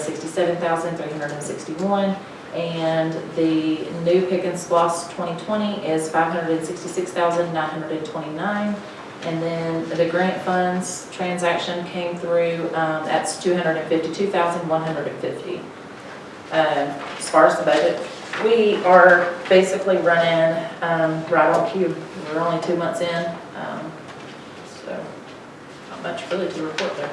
sixty-seven thousand three hundred and sixty-one. And the new pick and splosh twenty twenty is five hundred and sixty-six thousand nine hundred and twenty-nine. And then the grant funds transaction came through, um, that's two hundred and fifty-two thousand one hundred and fifty. Um, as far as the budget, we are basically running, um, right on cue. We're only two months in, um, so not much really to report there.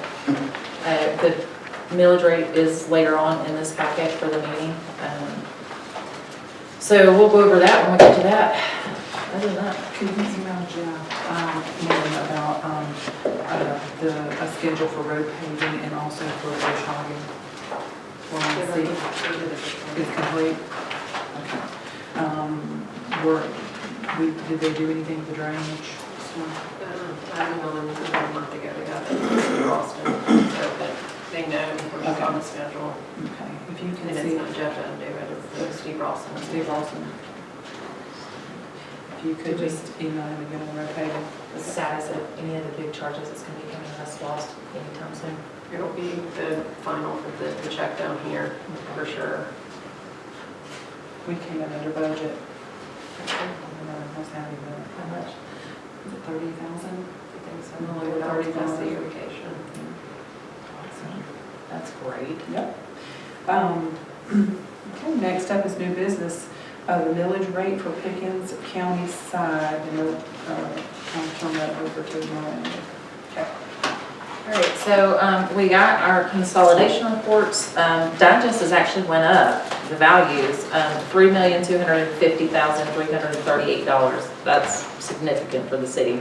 Uh, the millage rate is later on in this packet for the meeting. um, So we'll go over that when we get to that. Other than that, Could you email Jeff, um, Mary about, um, uh, the, a schedule for road paving and also for bush hogging? Well, let's see, it's complete? Okay. Um, were, we, did they do anything with the drainage? So, Timing on them was about a month ago, they got it from Boston, so that they know we're just on the schedule. Okay, if you And can it's see, not Jeff and David, it's Steve Ralston. Steve Lawson. If you could just email him and get him road paving. the sad is that any of the big charges that's gonna be coming to us lost anytime soon. It'll be the final for the, the check down here, for sure. We came in under budget. I don't know, how's that even? How much? Is it thirty thousand? I think so, only without the irrigation. That's great. Yep. Um, Okay, next up is new business, uh, the millage rate for Pickens County side, and uh, I'll turn that over to Lauren. All right, so um, we got our consolidation reports. Um, Digest has actually went up, the values, um, $3,250,338. That's significant for the city.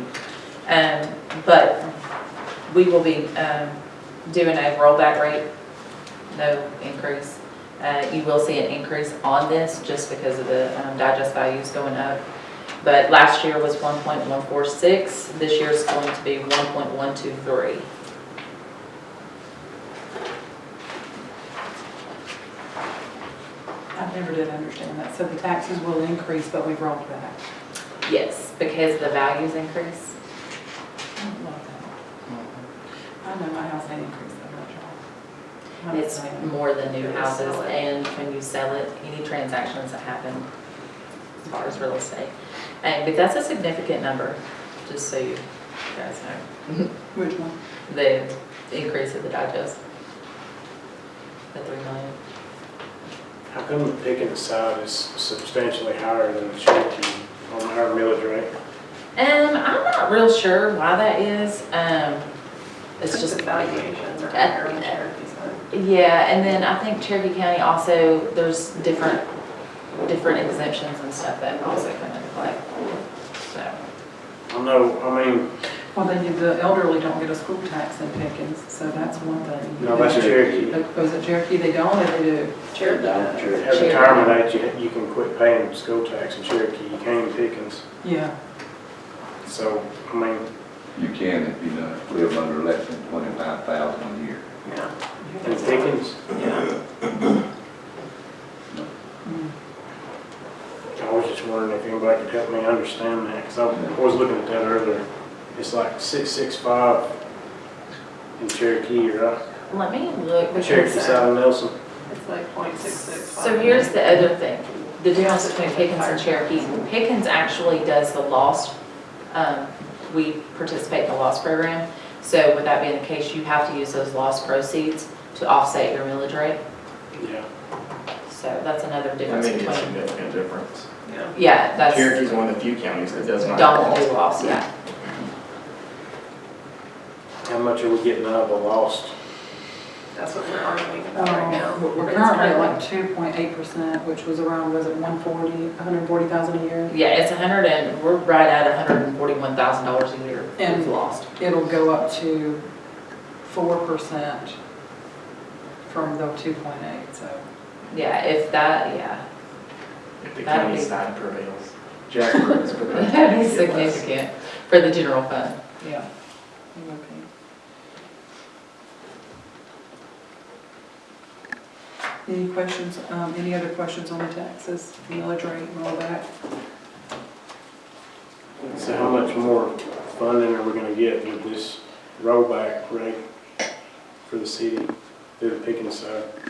Um, But we will be um, doing a rollback rate, no increase. Uh, You will see an increase on this just because of the um, digest values going up. But last year was 1.146, this year's going to be 1.123. I never did understand that, so the taxes will increase, but we've rolled back. Yes, because the values increase. I don't love that. I know my house ain't increased that much. y'all. I'm It's saying. more than new houses Sell it. and when you sell it, any transactions that happen as far as real estate. And, but that's a significant number, just so you guys know, Which one? the increase of the digest. The three million. How come the Pickens side is substantially higher than the Cherokee on our millage rate? Um, I'm not real sure why that is, um, it's just. The valuations are Yeah. higher on Cherokee's side. Yeah, and then I think Cherokee County also, there's different, different exemptions and stuff that also come into play, so. I know, I mean, Well, then the elderly don't get a school tax in Pickens, so that's one thing. no, that's Cherokee. Like, Was it Cherokee? They don't, or they do? Cherokee. At retirement age, you- you can quit paying school tax in Cherokee, you can in Pickens. Yeah. So, I mean, You can if you don't live under less than twenty-five thousand a year. Yeah, in Pickens, yeah. Mm. I was just wondering if anybody could help me understand that, because I was looking at that earlier. It's like six, six, five in Cherokee, right? Let me look. because- Cherokee side of Nelson. It's like point six six five. So here's the other thing, the difference between Pickens and Cherokee. Pickens actually does the lost, um, we participate in the lost program. So with that being the case, you have to use those lost proceeds to offset your millage rate. Yeah. So that's another I difference think it's a between, significant difference. Yeah. yeah, that's, Cherokee's one of the few counties that does not. don't do loss, yeah. How much are we getting out of the lost? That's what we're arguing about right now. Um, We're It's currently at kinda- like two point eight percent, which was around, was it one forty, hundred and forty thousand a year? Yeah, it's a hundred and, we're right at a hundred and forty-one thousand dollars a year. And- we've lost. It'll go up to four percent from the two point eight, so. Yeah, if that, yeah, If the That'd county be- side prevails. Jackford is prepared. that'd be significant for the general fund. Yeah. Okay. Any questions, um, any other questions on the taxes, millage rate, and all that? So how much more funding are we gonna get with this rollback rate for the city through the Pickens side?